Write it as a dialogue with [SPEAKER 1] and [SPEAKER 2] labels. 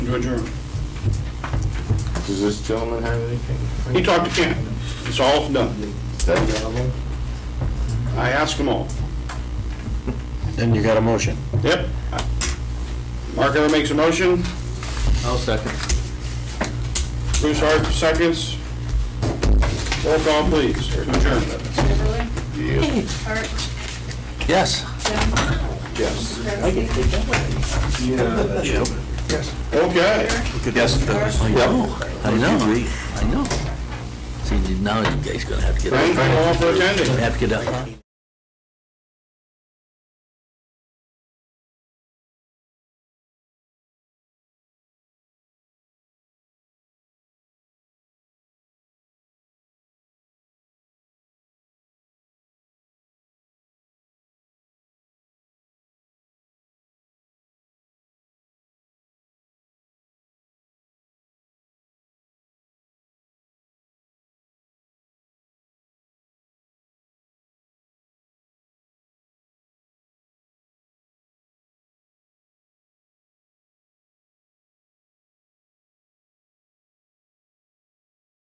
[SPEAKER 1] to adjourn.
[SPEAKER 2] Does this gentleman have anything?
[SPEAKER 1] He talked to Ken. It's all done.
[SPEAKER 2] That gentleman?
[SPEAKER 1] I asked them all.
[SPEAKER 3] Then you got a motion.
[SPEAKER 1] Yep. Mark Ella makes a motion.
[SPEAKER 4] I'll second.
[SPEAKER 1] Bruce Hart seconds. Roll call, please, to adjourn.
[SPEAKER 5] Beverly,
[SPEAKER 2] Yes.
[SPEAKER 5] Hart,
[SPEAKER 3] Yes.
[SPEAKER 5] Jones,
[SPEAKER 2] Yes.
[SPEAKER 5] Krasinski,
[SPEAKER 1] Okay.
[SPEAKER 3] Yes.
[SPEAKER 5] Marsh.
[SPEAKER 4] I know, I know. See, now you guys gonna have to get,
[SPEAKER 1] Thank you all for attending.
[SPEAKER 4] have to get up.